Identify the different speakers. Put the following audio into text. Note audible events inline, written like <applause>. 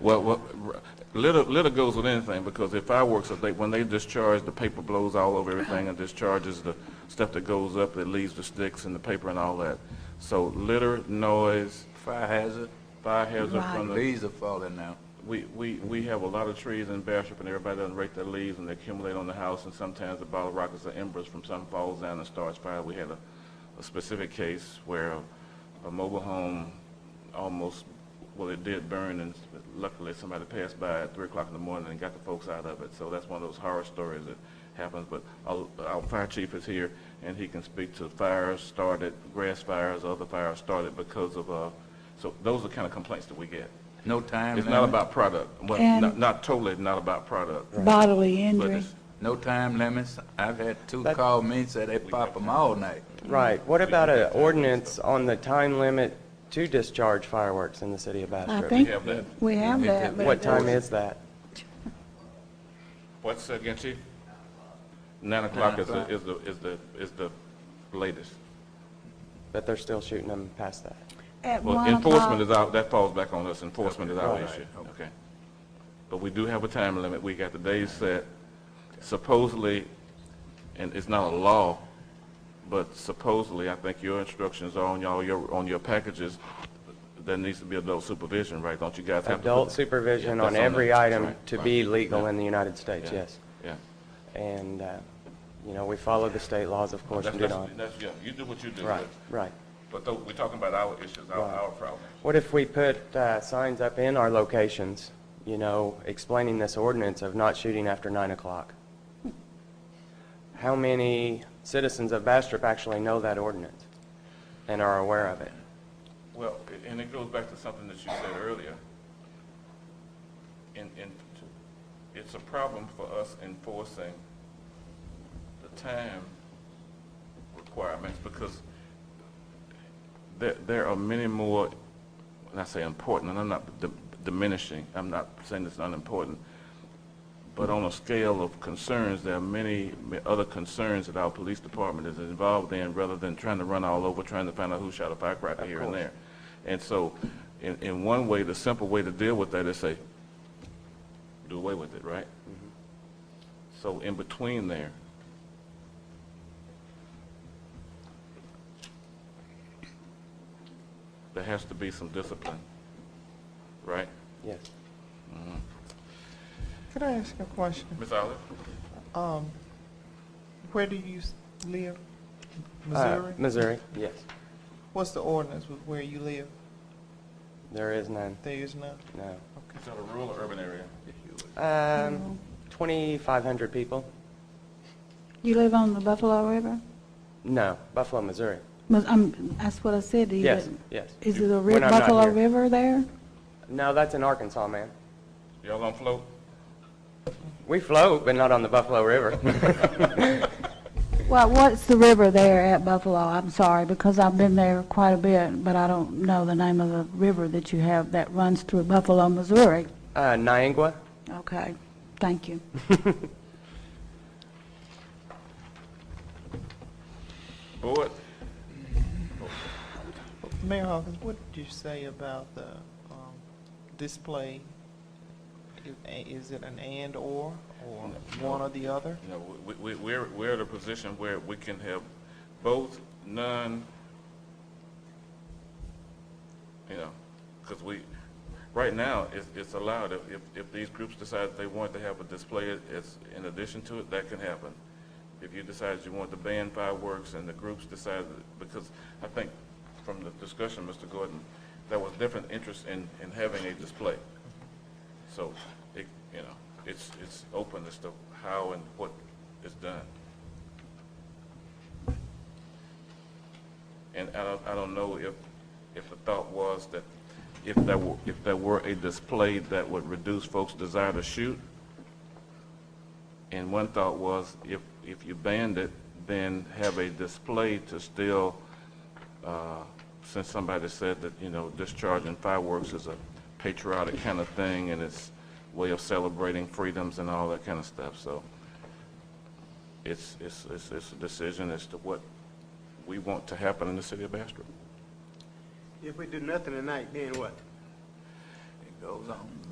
Speaker 1: Well, well, r- litter, litter goes with anything, because if fireworks, if they, when they discharge, the paper blows all over everything and discharges the stuff that goes up, that leaves the sticks and the paper and all that. So litter, noise,
Speaker 2: Fire hazard,
Speaker 1: fire hazard from the,
Speaker 2: leaves are falling now.
Speaker 1: we, we, we have a lot of trees in Bastrop, and everybody doesn't rake their leaves, and they accumulate on the house, and sometimes the bottle rockets or embers from something falls down and starts fire. We had a, a specific case where a mobile home almost, well, it did burn, and luckily somebody passed by at three o'clock in the morning and got the folks out of it. So that's one of those horror stories that happens, but our, our fire chief is here, and he can speak to fires started, grass fires, other fires started because of, uh, so those are the kind of complaints that we get.
Speaker 2: No time
Speaker 1: It's not
Speaker 2: limit,
Speaker 1: about product, well,
Speaker 3: And-
Speaker 1: not, not totally not about product,
Speaker 3: bodily
Speaker 1: but
Speaker 3: injury.
Speaker 1: it's,
Speaker 2: no time limits. I've had two
Speaker 4: That-
Speaker 2: call me and said they pop them all night.
Speaker 4: Right. What about an ordinance on the time limit to discharge fireworks in the city of
Speaker 3: I
Speaker 4: Bastrop?
Speaker 1: we
Speaker 3: think
Speaker 1: have that.
Speaker 3: we have that, but.
Speaker 4: What
Speaker 3: it
Speaker 4: time
Speaker 3: doesn't-
Speaker 4: is that?
Speaker 1: What's that again, chief? Nine o'clock is the,
Speaker 2: o'clock.
Speaker 1: is the, is the, is the latest.
Speaker 4: But they're still shooting them past that.
Speaker 3: At
Speaker 1: Well,
Speaker 3: one
Speaker 1: enforcement is
Speaker 3: o'clock,
Speaker 1: our, that falls back on us, enforcement is our
Speaker 4: Right.
Speaker 1: issue, okay? But we do have a time limit, we got the days set, supposedly, and it's not a law, but supposedly, I think your instructions are on y'all, your, on your packages, there needs to be adult supervision, right? Don't you guys have to? put-
Speaker 4: Adult supervision
Speaker 1: Yeah,
Speaker 4: on
Speaker 1: that's
Speaker 4: every
Speaker 1: the- that's
Speaker 4: item
Speaker 1: right,
Speaker 4: to
Speaker 1: right.
Speaker 4: be legal
Speaker 1: Yeah,
Speaker 4: in the United States,
Speaker 1: yeah,
Speaker 4: yes.
Speaker 1: Yeah.
Speaker 4: And, uh, you know, we follow the state laws, of course,
Speaker 1: That's,
Speaker 4: and do
Speaker 1: that's,
Speaker 4: not.
Speaker 1: that's, yeah, you do what you do.
Speaker 4: Right, right.
Speaker 1: But though, we're talking about our issues, our,
Speaker 4: Right.
Speaker 1: our problem.
Speaker 4: What if we put uh, signs up in our locations, you know, explaining this ordinance of not shooting after 9 o'clock? How many citizens of Bastrop actually know that ordinance and are aware of it?
Speaker 1: Well, a- and it goes back to something that you said earlier. And, and it's a problem for us enforcing the time requirements because there, there are many more, when I say important, and I'm not d- diminishing, I'm not saying it's not important, but on a scale of concerns, there are many m- other concerns that our police department is involved in rather than trying to run all over, trying to find out who shot a firecracker here and
Speaker 4: course.
Speaker 1: there. And so, in, in one way, the simple way to deal with that is say, do away with it, right? So in between there, there has to be some discipline, right?
Speaker 4: Yes.
Speaker 5: Could I ask you a question?
Speaker 1: Ms. Olive?
Speaker 5: Um, where do you s- live?
Speaker 4: Uh,
Speaker 5: Missouri?
Speaker 4: Missouri, yes.
Speaker 5: What's the ordinance with where you live?
Speaker 4: There is none,
Speaker 5: There is none.
Speaker 4: no.
Speaker 1: Is that a rural or urban area?
Speaker 4: Um, 2,500 people?
Speaker 3: you live on the Buffalo River?
Speaker 4: No, Buffalo, Missouri.
Speaker 3: Mas- I'm- That's what I said, do you?
Speaker 4: Yes, yes.
Speaker 3: Is it a
Speaker 4: When I'm not
Speaker 3: Buffalo
Speaker 4: here.
Speaker 3: River there?
Speaker 4: No, that's in Arkansas, man.
Speaker 1: Y'all on float? <laughs>
Speaker 4: We float, but not on the
Speaker 3: <laughs>
Speaker 4: Buffalo River.
Speaker 3: Well, what's the river there at Buffalo? I'm sorry, because I've been there quite a bit, but I don't know the name of the river that you have that runs through Buffalo, Missouri.
Speaker 4: Uh, Niangua?
Speaker 3: Okay, thank you.
Speaker 1: Board?
Speaker 5: Mayor Hawkins, what did you say about the, um, display? I- Is it an and or, or one or the other?
Speaker 1: You know, we, we, we're, we're at a position where we can have both, none, you know, because we, right now, it's, it's allowed, if, if- if these groups decide they want to have a display as, in addition to it, that can happen. If you decide you want to ban fireworks and the groups decide, because I think from the discussion, Mr. Gordon, there was different interest in, in having a display. So, it, you know, it's, it's open as to how and what is done. And I don't, I don't know if, if the thought was that if there were, if there were a display that would reduce folks' desire to shoot. And one thought was if, if you banned it, then have a display to still, uh, since somebody said that, you know, discharging fireworks is a patriotic kind of thing and it's way of celebrating freedoms and all that kind of stuff, so it's, it's, it's, it's a decision as to what we want to happen in the city of Bastrop.
Speaker 6: If we do nothing tonight, then what?
Speaker 2: It goes on.